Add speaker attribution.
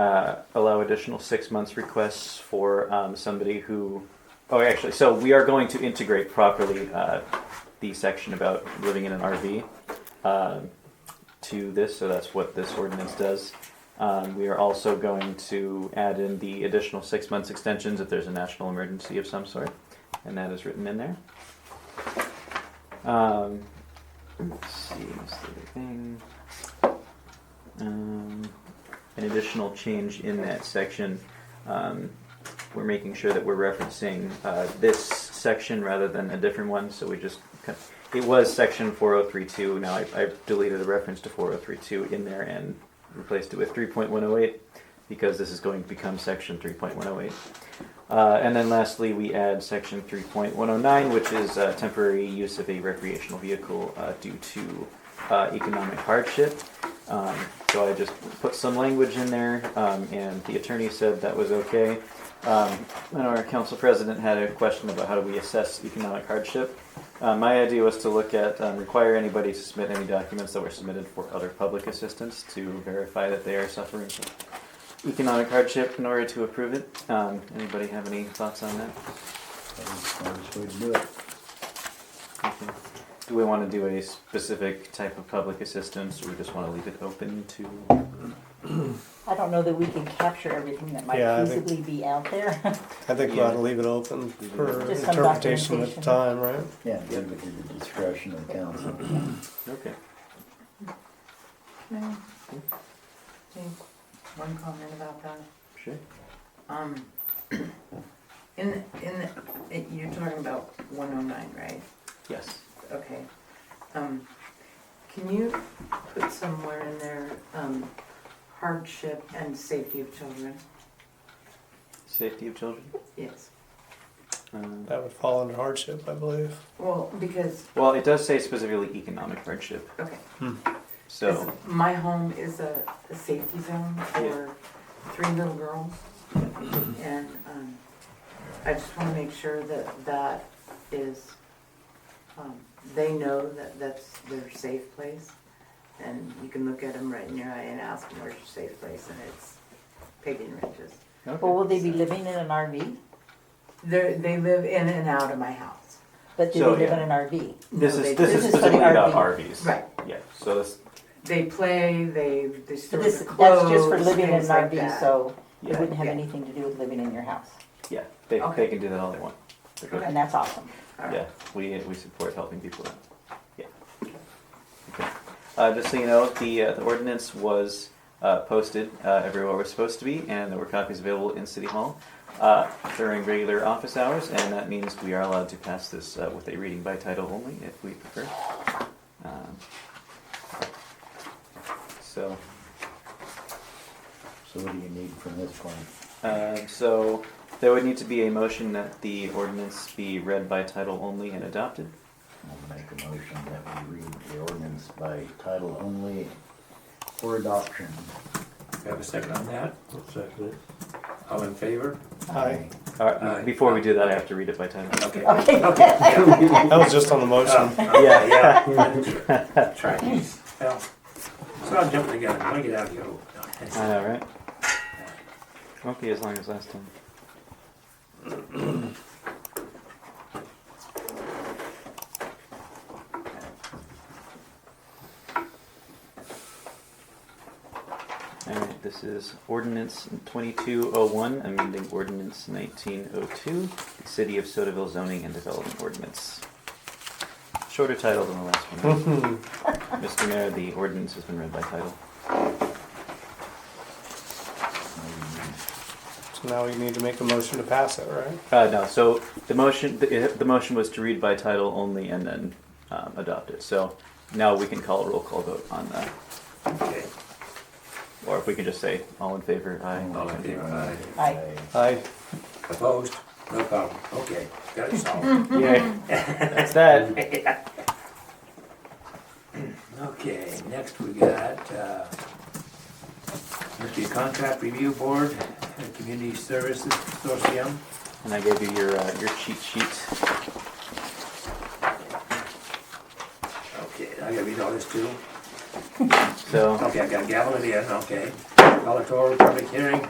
Speaker 1: uh, allow additional six months requests for um, somebody who. Oh, actually, so we are going to integrate properly uh, the section about living in an RV um, to this, so that's what this ordinance does. Um, we are also going to add in the additional six months extensions if there's a national emergency of some sort, and that is written in there. Um, let's see, what's the other thing? Um, an additional change in that section. Um, we're making sure that we're referencing uh, this section rather than a different one, so we just, cut- it was section 4032, now I- I've deleted the reference to 4032 in there and replaced it with 3.108, because this is going to become section 3.108. Uh, and then lastly, we add section 3.109, which is uh, temporary use of a recreational vehicle uh, due to uh, economic hardship. Um, so I just put some language in there, um, and the attorney said that was okay. Um, and our council president had a question about how do we assess economic hardship. Uh, my idea was to look at um, require anybody to submit any documents that were submitted for other public assistance to verify that they are suffering from economic hardship in order to approve it. Um, anybody have any thoughts on that?
Speaker 2: Smartest way to do it.
Speaker 1: Okay. Do we want to do a specific type of public assistance, or we just want to leave it open to?
Speaker 3: I don't know that we can capture everything that might
Speaker 4: Yeah, I think-
Speaker 3: feasibly be out there.
Speaker 4: I think we
Speaker 1: Yeah.
Speaker 4: ought to leave it open for
Speaker 3: Just some
Speaker 4: interpretation at the
Speaker 3: documentation.
Speaker 4: time, right?
Speaker 2: Yeah, leave it to the discretion of council.
Speaker 1: Okay.
Speaker 5: May I make One comment about that.
Speaker 1: Sure.
Speaker 5: Um, in, in, it- you're talking about one oh nine, right?
Speaker 1: Yes.
Speaker 5: Okay. Um, can you put somewhere in there, um, hardship and safety of children?
Speaker 1: Safety of children.
Speaker 5: Yes.
Speaker 1: Um,
Speaker 4: That would fall under hardship, I believe.
Speaker 5: Well, because,
Speaker 1: well, it does say specifically economic hardship,
Speaker 5: okay,
Speaker 1: so
Speaker 5: 'cause my home is a, a safety zone for three little girls. And, um, I just wanna make sure that that is, um, they know that that's their safe place. And you can look at them right in your eye and ask them, where's your safe place? And it's Peyton Ridges.
Speaker 3: Well,
Speaker 1: okay.
Speaker 3: will they be living in an RV?
Speaker 5: They're, they live in and out of my house.
Speaker 3: But do
Speaker 1: So,
Speaker 3: they live
Speaker 1: yeah.
Speaker 3: in an RV?
Speaker 1: this
Speaker 5: No,
Speaker 1: is
Speaker 5: they-
Speaker 1: this, is
Speaker 3: this is for the
Speaker 1: specifically about
Speaker 3: RV.
Speaker 1: RVs.
Speaker 5: Right,
Speaker 1: Yeah. So this.
Speaker 5: they play, they, they
Speaker 3: But
Speaker 5: store
Speaker 3: this,
Speaker 5: the
Speaker 3: that's just for
Speaker 5: clothes,
Speaker 3: living in an
Speaker 5: things like
Speaker 3: RV,
Speaker 5: that.
Speaker 3: so it
Speaker 1: Yeah.
Speaker 3: wouldn't have
Speaker 5: yeah.
Speaker 3: anything to do with living in your house.
Speaker 1: Yeah. They, they
Speaker 5: Okay.
Speaker 1: can do that all they want. They're good.
Speaker 5: Okay.
Speaker 3: And that's awesome.
Speaker 5: All right.
Speaker 1: Yeah, we, we support helping people out. Yeah. Okay. Uh, just so you know, the, uh, the ordinance was, uh, posted, uh, everywhere it was supposed to be, and there were copies available in City Hall, uh, during regular office hours, and that means we are allowed to pass this, uh, with a reading by title only, if we prefer. Um, So,
Speaker 2: So what do you need from this point?
Speaker 1: uh, so there would need to be a motion that the ordinance be read by title only and adopted.
Speaker 2: I'll make a motion that we read the ordinance by title only for adoption.
Speaker 6: Have a second on that? Second. All in favor?
Speaker 4: Aye.
Speaker 1: All right,
Speaker 6: Aye.
Speaker 1: before we do that, I have to read it by title.
Speaker 6: Okay.
Speaker 3: Okay.
Speaker 6: Yeah,
Speaker 4: That was just on the motion.
Speaker 1: Yeah.
Speaker 6: yeah. Try these. Well, So I'm jumping the gun, I'm gonna get out of here.
Speaker 1: I know, right? Won't be as long as last time. Alright, this is ordinance twenty-two oh one, amending ordinance nineteen oh two, the city of Sotaville zoning and development ordinance. Shorter title than the last one.
Speaker 4: Oh.
Speaker 1: Mr. Mayor, the ordinance has been read by title.
Speaker 4: So now we need to make a motion to pass it, right?
Speaker 1: Uh, no, so the motion, the, the motion was to read by title only and then um, adopt it. So now we can call a roll call vote on that,
Speaker 6: Okay.
Speaker 1: or if we can just say all in favor, aye.
Speaker 6: All in favor, aye.
Speaker 3: Aye.
Speaker 4: Aye.
Speaker 6: Opposed? No problem. Okay, got it solved.
Speaker 1: Yay. That's that.
Speaker 6: Okay, next we got, uh, Mr. Contract Review Board, and Community Services Consortium.
Speaker 1: And I gave you your uh, your cheat sheet.
Speaker 6: Okay, I gotta read all this too.
Speaker 1: So
Speaker 6: Okay, I gotta gavel it in, okay. Call it to order, public hearing,